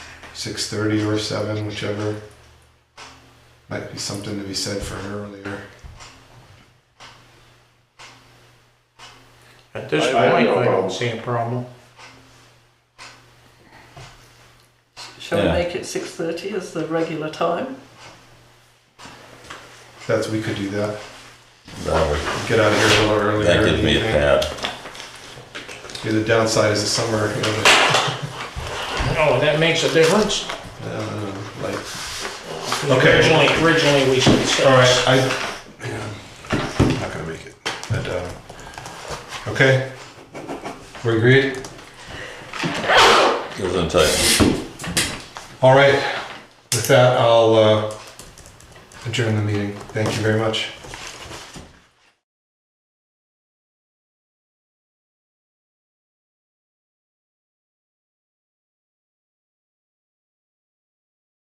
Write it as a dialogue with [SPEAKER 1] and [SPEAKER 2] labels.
[SPEAKER 1] six thirty or seven, whichever. Might be something to be said for earlier.
[SPEAKER 2] At this
[SPEAKER 3] I- I have
[SPEAKER 2] point,
[SPEAKER 3] no
[SPEAKER 2] I
[SPEAKER 3] problem.
[SPEAKER 2] don't see a problem.
[SPEAKER 4] Shall
[SPEAKER 5] Yeah.
[SPEAKER 4] we make it six thirty as the regular time?
[SPEAKER 1] That's we could do that.
[SPEAKER 5] That would,
[SPEAKER 1] Get out of here a little earlier.
[SPEAKER 5] that gives me a
[SPEAKER 1] evening.
[SPEAKER 5] pad.
[SPEAKER 1] Yeah, the downside is the summer, you know,
[SPEAKER 2] Oh, that makes a difference?
[SPEAKER 1] the, uh, like, Okay.
[SPEAKER 2] Originally, originally we said six.
[SPEAKER 1] all right, I, yeah, I'm not gonna make it. But, uh, okay, we agreed?
[SPEAKER 5] Goes in tight.
[SPEAKER 1] All right, with that, I'll uh, adjourn the meeting. Thank you very much.